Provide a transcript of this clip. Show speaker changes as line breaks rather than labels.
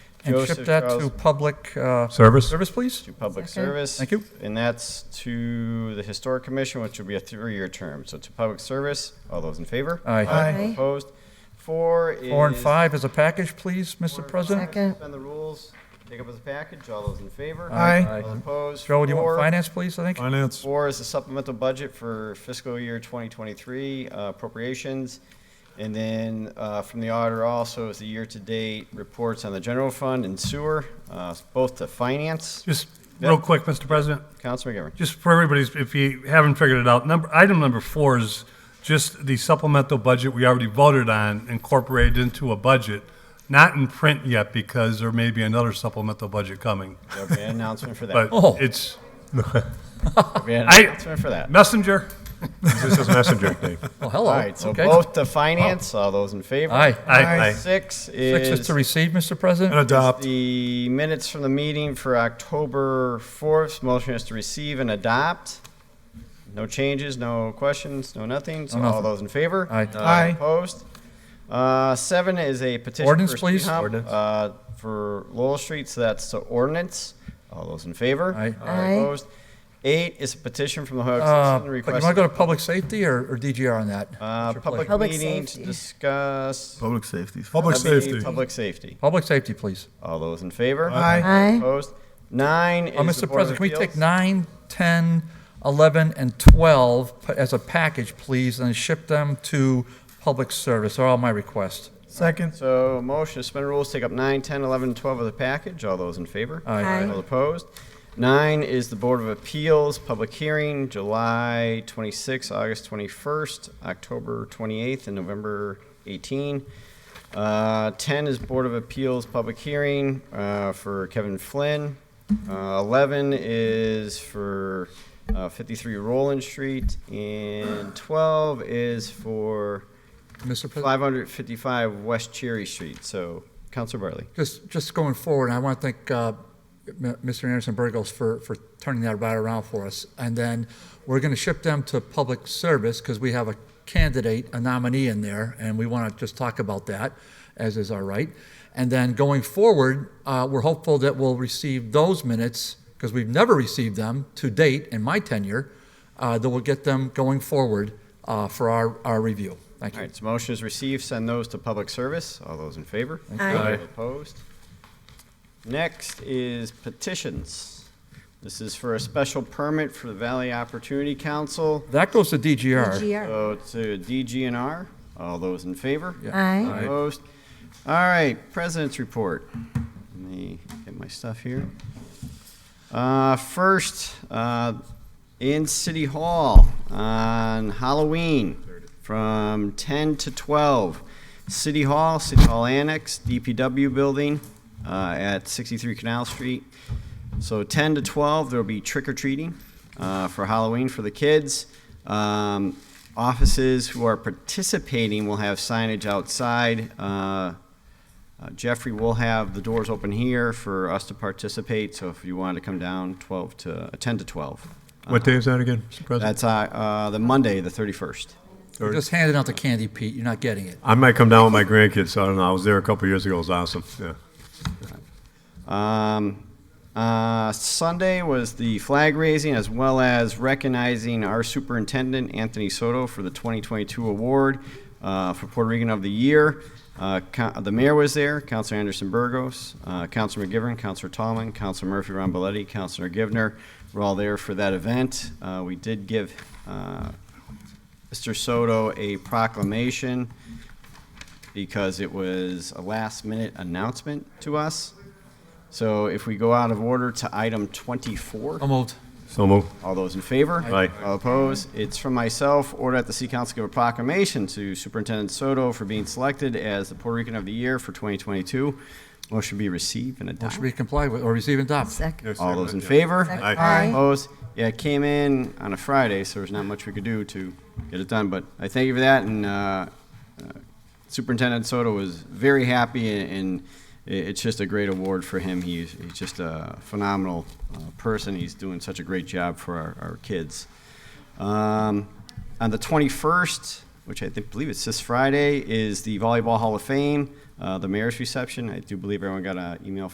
and
Joseph
ship that to
Charles-
public uh,
Service?
service, please?
to public
Second.
service.
Thank you.
And that's to the Historic Commission, which will be a three-year term. So to public service, all those in favor?
Aye.
Aye.
Opposed? Four is.
Four and five as a package, please,
Four
Mr.
and
President?
five,
Second.
Suspend the rules, take up as a package, all those in favor?
Aye.
All those opposed?
Joe, do you
Four-
want finance, please, I think?
Finance?
Four is the supplemental budget for fiscal year 2023 uh, appropriations. And then uh, from the auditor also is the year-to-date reports on the general fund and sewer, uh, both to finance.
Just
Yep.
real quick, Mr. President,
Councilman McGivern.
just for everybody's, if you haven't figured it out, number, item number four is just the supplemental budget we already voted on incorporated into a budget, not in print yet because there may be another supplemental budget coming.
There'll be an announcement for that.
But
Oh.
it's
There'll be an
I-
announcement for that.
messenger.
This is Messenger, Dave.
Oh, hello.
All right, so
Okay. Oh.
both to finance, all those in favor?
Aye.
I,
Six
Six is
is
to receive, Mr.
And
President? Uh,
adopt.
the minutes from the meeting for October 4th. Motion is to receive and adopt. No changes, no questions, no nothing. So
No nothing.
all those in favor?
Aye.
Uh,
Aye.
Opposed? Uh, Seven is a petition.
Ordinance,
for speed
please.
hump,
Ordinance.
uh, For Lowell Street, so that's the ordinance. All those in favor?
Aye.
Uh,
Aye.
Opposed? Eight is a petition from the Hoyok
Uh,
Citizen
But you want
requesting.
to go to public safety or or DGR on that? What's
Uh,
your
public
pleasure?
Public
meeting to
safety.
discuss.
Public safety.
Public
That'd be
safety.
Public safety.
Public safety, please.
All those in favor?
Aye.
Aye.
Opposed? Nine is
Uh,
the
Mr.
Board of
President, can we take
Appeals.
nine, 10, 11, and 12 p- as a package, please, and ship them to public service? Are all my requests.
Second.
So motion to suspend rules, take up nine, 10, 11, and 12 of the package. All those in favor?
Aye.
Aye.
All opposed? Nine is the Board of Appeals, public hearing, July 26, August 21st, October 28th, and November 18. Uh, 10 is Board of Appeals, public hearing uh, for Kevin Flynn. Uh, 11 is for uh, 53 Roland Street, and 12 is for
Mr. President?
555 West Cherry Street. So, Counselor Bartley.
Just, just going forward, I want to thank uh, M- Mr. Anderson Burgos for, for turning that right around for us. And then we're going to ship them to public service because we have a candidate, a nominee in there, and we want to just talk about that, as is our right. And then going forward, uh, we're hopeful that we'll receive those minutes, because we've never received them to date in my tenure, uh, that we'll get them going forward uh, for our, our review. Thank
All
you.
right, so motion is received, send those to public service. All those in favor?
Aye.
All Opposed? Next is petitions. This is for a special permit for the Valley Opportunity Council,
That goes to DGR.
GR.
so to DGNR. All those in favor?
Yeah.
Aye.
Aye.
Opposed? All right, President's Report. Let me get my stuff here. Uh, First, uh, in City Hall on Halloween from 10 to 12, City Hall, City Hall Annex, DPW Building uh, at 63 Canal Street. So 10 to 12, there'll be trick or treating uh, for Halloween for the kids. Um, offices who are participating will have signage outside. Uh, uh, Jeffrey will have the doors open here for us to participate. So if you wanted to come down, 12 to uh, 10 to 12.
What day is that again, Mr. President?
That's uh, uh, the Monday, the 31st.
We're Just handing out the candy, Pete. You're not getting it.
I might come down with my grandkids, so I don't know. I was there a couple years ago. It was awesome, yeah.
Um, uh, Sunday was the flag raising as well as recognizing our superintendent, Anthony Soto, for the 2022 award uh, for Puerto Rican of the Year. Uh, co- the mayor was there, Councilor Anderson Burgos, uh, Councilor McGivern, Councilor Tallman, Councilor Murphy Ramboletti, Councilor Givner were all there for that event. Uh, we did give uh, Mr. Soto a proclamation because it was a last minute announcement to us. So if we go out of order to item 24,
So moved.
So moved.
all those in favor?
Aye.
All opposed? It's from myself, order at the City Council give a proclamation to Superintendent Soto for being selected as the Puerto Rican of the Year for 2022. Motion be received and
Motion
adopted.
be complied with, or receive and adopt.
Second.
All those in favor?
Aye.
Aye.
Opposed? Yeah, it came in on a Friday, so there's not much we could do to get it done, but I thank you for that, and uh, uh, Superintendent Soto was very happy, and- and i- it's just a great award for him. He's he's just a phenomenal uh, person. He's doing such a great job for our our kids. Um, On the 21st, which I think, believe it's this Friday, is the Volleyball Hall of Fame, uh, the mayor's reception. I do believe everyone got an email